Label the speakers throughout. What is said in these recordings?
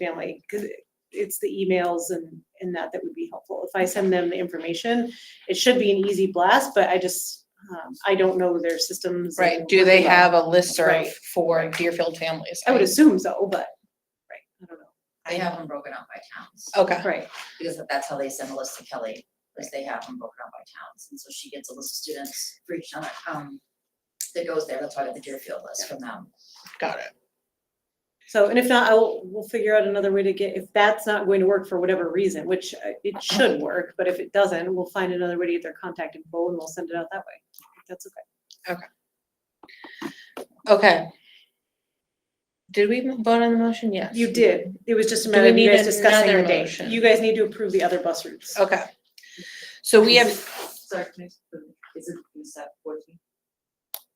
Speaker 1: family, because it's the emails and, and that that would be helpful. If I send them the information, it should be an easy blast, but I just, um, I don't know their systems. and
Speaker 2: Right, do they
Speaker 1: workflow.
Speaker 2: have a
Speaker 1: Right.
Speaker 2: listserv for Deerfield families?
Speaker 1: I would assume so, but, right, I don't know, Oh.
Speaker 3: I have them broken out by towns,
Speaker 2: Okay,
Speaker 1: right,
Speaker 3: because that's how they send a list to Kelly, is they have them broken out by towns, and so she gets a list of students for each town, um, that goes there, that's why I got the Deerfield list from them.
Speaker 2: got it.
Speaker 1: so, and if not, I'll, we'll figure out another way to get, if that's not going to work for whatever reason, which uh, it should work, but if it doesn't, we'll find another way to get their contact info and we'll send it out that way. That's okay.
Speaker 2: Okay. Did we vote on the motion? Yes.
Speaker 1: You did, it was just a
Speaker 2: Do we
Speaker 1: matter of you
Speaker 2: need
Speaker 1: guys discussing
Speaker 2: another
Speaker 1: the date.
Speaker 2: motion?
Speaker 1: You guys need to approve the other bus routes.
Speaker 2: Okay. So we have,
Speaker 3: Sorry, can I, is it, is that fourteen?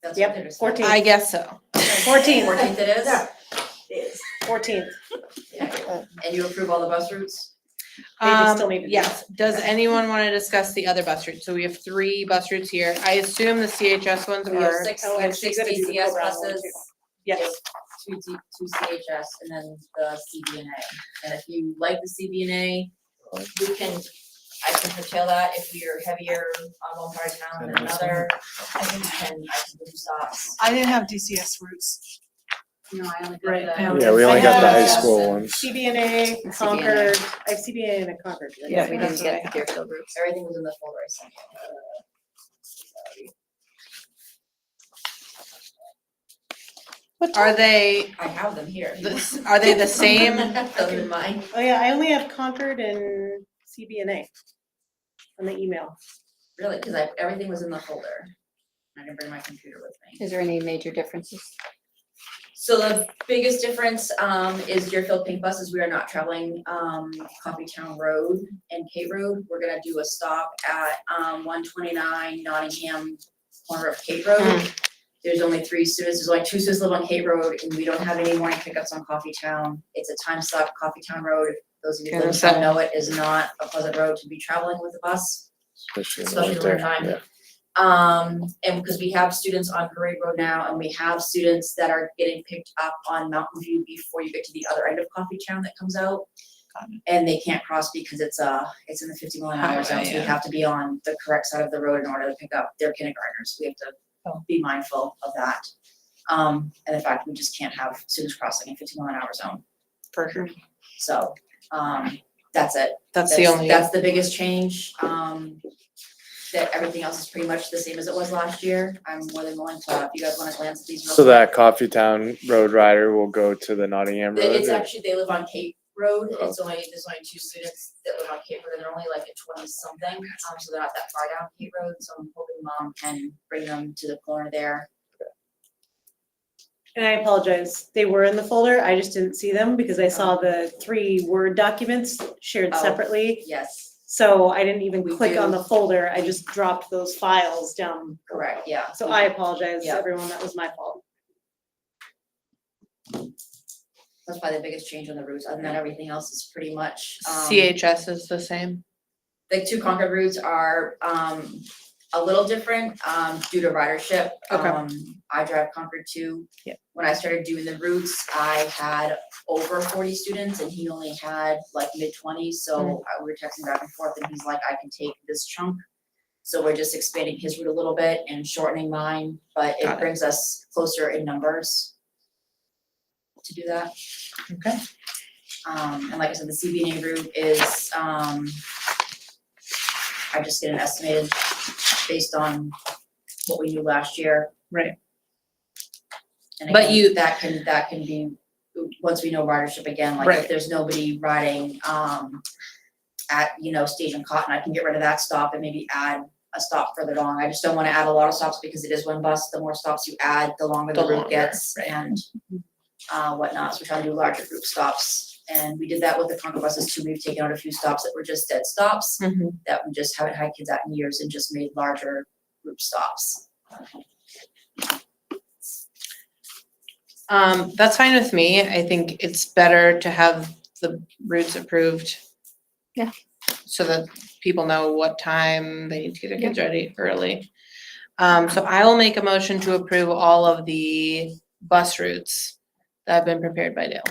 Speaker 3: That's
Speaker 1: Yep,
Speaker 3: what they're.
Speaker 1: 14.
Speaker 2: I guess so.
Speaker 1: Fourteen.
Speaker 3: Fourteenth it is? Is.
Speaker 1: Fourteenth.
Speaker 3: Yeah, and you approve all the bus routes?
Speaker 1: They just still
Speaker 2: Um,
Speaker 1: need to do
Speaker 2: Yes, does anyone want to discuss the other bus routes? So we have three bus routes here. I assume the CHS ones
Speaker 3: We have
Speaker 2: were,
Speaker 3: six,
Speaker 1: oh,
Speaker 3: we have
Speaker 1: and she's
Speaker 3: six
Speaker 1: gonna do the
Speaker 3: DCS
Speaker 1: co-brown one
Speaker 3: buses.
Speaker 1: too.
Speaker 3: we have
Speaker 1: Yes,
Speaker 3: Two D, two CHS and then the CBNA, and if you like the CBNA, we can, I can curtail that if we are heavier on one part of town than
Speaker 4: Then we
Speaker 3: another. I think we can, I can move stops.
Speaker 5: I didn't have DCS roots.
Speaker 3: No, I only
Speaker 1: Right, I
Speaker 3: got the.
Speaker 4: Yeah, we only got the high
Speaker 1: have-
Speaker 4: school ones.
Speaker 1: CBNA, Concord, I have CBNA and a Concord. right?
Speaker 5: Yeah, we didn't
Speaker 1: That's what I
Speaker 5: get
Speaker 1: have.
Speaker 3: Deerfield groups. Everything was in the folder I sent you.
Speaker 2: are they,
Speaker 3: I have them here.
Speaker 2: the- are they the same?
Speaker 3: Those are mine.
Speaker 1: Oh, yeah, I only have Concord and CBNA on the email.
Speaker 3: Really, because I, everything was in the folder. I didn't bring my computer with me.
Speaker 6: Is there any major differences?
Speaker 3: So the biggest difference, um, is Deerfield Pink buses, we are not traveling, um, Coffeetown Road and K Road. We're gonna do a stop at, um, one twenty-nine Nottingham, corner of Cape
Speaker 6: Hmm.
Speaker 3: Road. There's only three students, there's only two students live on Cape Road, and we don't have any morning pickups on Coffeetown. It's a time stop, Coffeetown Road, those of you who live in town know it, is not a pleasant road to be traveling with a bus.
Speaker 4: especially in the
Speaker 3: Especially
Speaker 4: winter,
Speaker 3: during time.
Speaker 4: yeah.
Speaker 3: Um, and because we have students on Parade Road now, and we have students that are getting picked up on Mountain View before you get to the other end of Coffeetown that comes out. And they can't cross because it's uh, it's in the fifty mile an hour
Speaker 2: Highway,
Speaker 3: zone, so we
Speaker 2: Oh, yeah.
Speaker 3: have to be on the correct side of the road in order to pick up their kindergartners, we have
Speaker 2: Oh.
Speaker 3: to be mindful of that. Um, and the fact we just can't have students crossing in fifty mile an hour zone,
Speaker 2: For sure.
Speaker 3: so, um, that's it.
Speaker 2: That's the only,
Speaker 3: That's the biggest change, um, that everything else is pretty much the same as it was last year. I'm more than willing to, if you guys wanna glance at these. real
Speaker 4: So
Speaker 3: quick.
Speaker 4: that Coffee Town Road Rider will go to the Nottingham
Speaker 3: They-
Speaker 4: Road? Oh.
Speaker 3: It's
Speaker 4: or-
Speaker 3: actually, they live on Cape Road, it's only, there's only two students that live on Cape Road, and they're only like at twenty something, um, so they're not that far down Cape Road, so I'm hoping mom can bring them to the corner there.
Speaker 1: And I apologize, they were in the folder, I just didn't see them because I saw the three Word documents shared
Speaker 3: Oh.
Speaker 1: separately.
Speaker 3: Yes,
Speaker 1: So I didn't even
Speaker 3: We
Speaker 1: click on
Speaker 3: do.
Speaker 1: the folder, I just dropped those files down.
Speaker 3: correct, yeah.
Speaker 1: So I apologize,
Speaker 3: Yeah.
Speaker 1: everyone, that was my fault.
Speaker 3: That's probably the biggest change on the routes, other than that, everything else is pretty much, um.
Speaker 2: CHS is the same?
Speaker 3: the two Concord routes are um a little different um due to ridership.
Speaker 2: Okay.
Speaker 3: Um, I drive Concord two.
Speaker 2: Yeah.
Speaker 3: When I started doing the routes, I had over forty students and he only had like mid twenties,
Speaker 2: Mm-hmm.
Speaker 3: so I- we were texting back and forth and he's like, I can take this chunk. So we're just expanding his route a little bit and shortening mine, but
Speaker 2: Got
Speaker 3: it
Speaker 2: it.
Speaker 3: brings us closer in numbers to do that.
Speaker 2: Okay.
Speaker 3: Um, and like I said, the CBNA route is, um, I just get an estimated based on what we knew last year.
Speaker 2: Right.
Speaker 3: And
Speaker 2: But
Speaker 3: again,
Speaker 2: you-
Speaker 3: that can, that can be, once we know ridership again, like
Speaker 2: Right.
Speaker 3: if there's nobody riding, um, at, you know, Station Cotton, I can get rid of that stop and maybe add a stop further along. I just don't wanna add a lot of stops because it is one bus. The more stops you add, the longer the
Speaker 2: The
Speaker 3: route
Speaker 2: longer,
Speaker 3: gets
Speaker 2: right.
Speaker 3: and uh, whatnot, so we're trying to do larger group stops. And we did that with the Concord buses too, we've taken out a few stops that were just dead stops,
Speaker 1: Mm-hmm.
Speaker 2: Mhm.
Speaker 3: that we just haven't had kids out in years and just made larger group stops.
Speaker 2: Um, that's fine with me. I think it's better to have the routes approved.
Speaker 6: Yeah.
Speaker 2: So that people know what time they need to get their kids ready early. Um, so I will make a motion to approve all of the bus routes that have been prepared by Dale.